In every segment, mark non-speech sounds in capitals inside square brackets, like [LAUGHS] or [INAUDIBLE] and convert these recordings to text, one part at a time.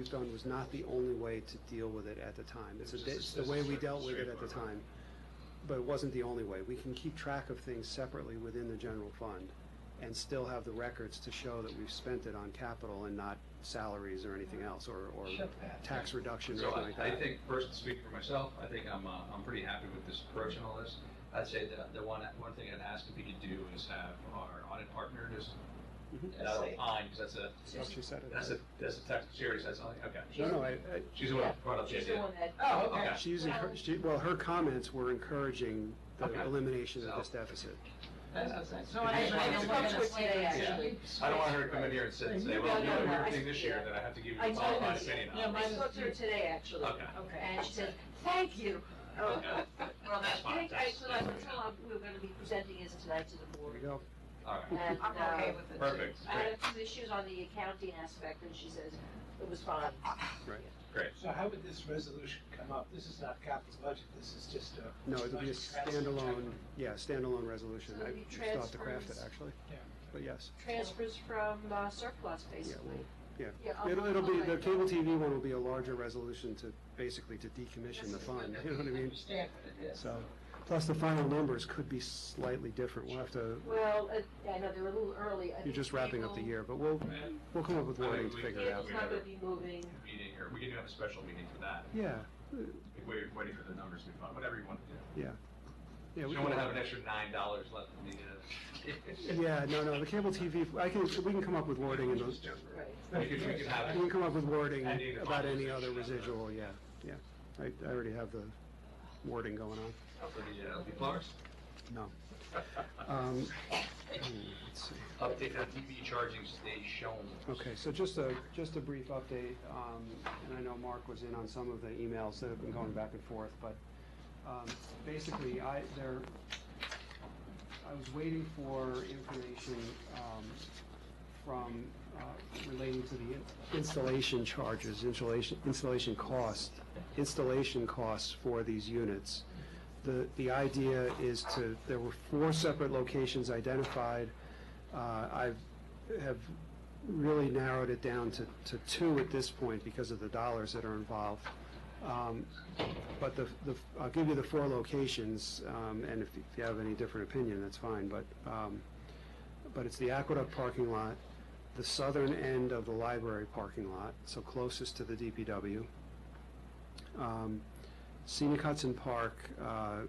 was done was not the only way to deal with it at the time. It's, a, it's the way we dealt with it at the time, but it wasn't the only way. We can keep track of things separately within the general fund and still have the records to show that we've spent it on capital and not salaries or anything else, or, or tax reduction or So anything I, like I that. think, first to speak for myself, I think I'm, uh, I'm pretty happy with this approach and all this. I'd say that the one, one thing I'd ask if we could do is have our audit partner just, Mhm. and I don't mind, because that's That's what she a, said. it. that's a, that's a tax, serious, that's something, okay. No, no, I, I, She's the one who brought up the She's the idea. one that. uh, Oh, okay. She's, encour- she, well, her comments were encouraging the Okay. elimination of So- this deficit. That's- that's nice. No, I I just I know wanted we're to- gonna say that, Yeah. actually. I don't want her to come in here and sit and say, No, well, you no, did a no, I- weird thing this year yeah. that I have to give you I a know qualified this. opinion Yeah, on. I spoke to her today, actually. Okay. And she said, thank you. Oh, Okay. Well, That's I fine. think I, That's- well, I was told we were gonna be presenting this tonight to the There board. you go. All right, And, I'm okay uh, with it. perfect, I great, had a few issues on the accounting aspect, and she says it was fine. great. So how would this resolution come up? This is not capital budget, this is just a. No, it'll be a standalone, yeah, standalone resolution. So I it'll be just thought to craft it, transfers. actually. Yeah. But yes, Transfers from uh, surplus, basically. yeah. Yeah, It'll, I'll- it'll be, I'll- the cable TV one will be a larger resolution to, basically to decommission the fund, [LAUGHS] you know what I mean? Understand what it is. So, plus the final numbers could be slightly different. We'll have to, Well, uh, I know they were a little early. I you're think just wrapping up the people- year, but we'll, Right. we'll come up with I think wording to we- figure it Yeah, out. it's not gonna be moving. Meeting, or we can have a special meeting for that, Yeah, if we're waiting for the numbers to be found, whatever you want to do. yeah. You we can- don't want to have an extra nine dollars left in the, uh. Yeah, no, no, the cable TV, I can, we can come up with wording in those, Right. We could, we could have We it. can come up with wording Ending the about any conversation other on that. residual, yeah, yeah. I, I already have the wording going on. Up for the, uh, the plumbers. Um, let's see. Update on DB charging station. Okay, so just a, just a brief update, um, and I know Mark was in on some of the emails that have been going back and forth, but um, basically, I, there, I was waiting for information um, from, uh, relating to the in- installation charges, installation, installation cost, installation costs for these units. The, the idea is to, there were four separate locations identified. Uh, I've, have really narrowed it down to, to two at this point because of the dollars that are involved. Um, But the, the, I'll give you the four locations, um, and if if you have any different opinion, that's fine, but, um, but it's the Aqueduct parking lot, the southern end of the library parking lot, so closest to the DPW. Um, Scenic Hudson Park, uh,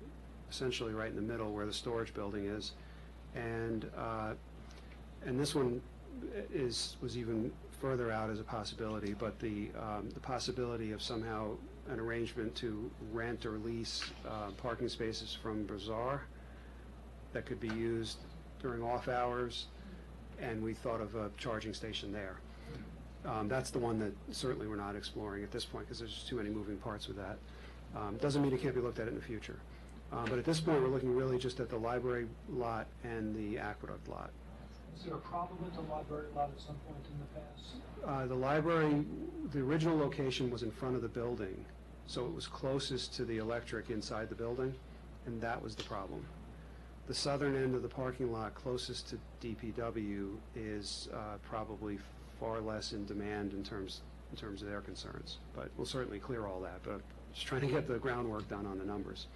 essentially right in the middle where the storage building is, and, uh, and this one is, was even further out as a possibility, but the, um, the possibility of somehow an arrangement to rent or lease, uh, parking spaces from Bazaar that could be used during off hours, and we thought of a charging station there. Um, that's the one that certainly we're not exploring at this point, because there's just too many moving parts with that. Um, doesn't mean it can't be looked at in the future. Uh, but at this point, we're looking really just at the library lot and the aqueduct lot. Is there a problem with the library lot at some point in the past? Uh, The library, the original location was in front of the building, so it was closest to the electric inside the building, and that was the problem. The southern end of the parking lot closest to DPW is uh, probably far less in demand in terms, in terms of their concerns. But we'll certainly clear all that, but I'm just trying to get the groundwork done on the numbers.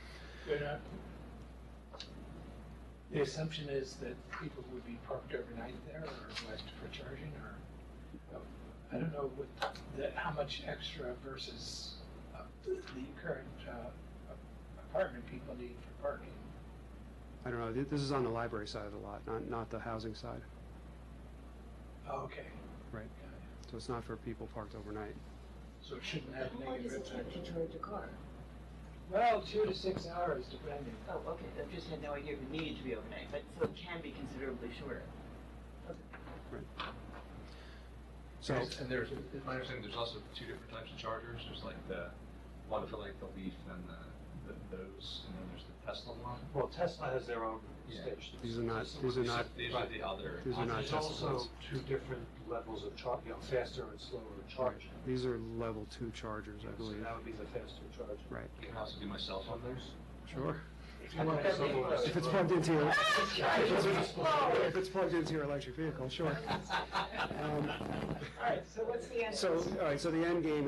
The assumption is that people would be parked overnight there or west for charging or, oh, I don't know what, that, how much extra versus uh, the current uh, apartment people need for parking. I don't know, th- this is on the library side of the lot, not, not the housing side, Oh, okay. Right. Got it. so it's not for people parked overnight. So it shouldn't have How long does negative it take impact. to charge a car? Well, two to six hours depending. Oh, okay, I just had no idea if it needed to be overnight, but so it can be considerably shorter. So, And there's, it's my understanding, there's also two different types of chargers, there's like the, one for like the Leaf and the, the- those, and then there's the Tesla one. Well, Tesla has their own Yeah. stations. these are not, these are not, These are the other. these are And not There's Tesla also ones. two different levels of charge, you know, faster and slower charging. These are level two chargers, I So believe. that would be the faster charge. Right. You can also do my cell phone there. Sure. If you want That'd be to- close. If it's plugged into your, Charge is slower. if it's plugged into your electric vehicle, sure. Um, All right, so what's the answer? So, all right, so the end game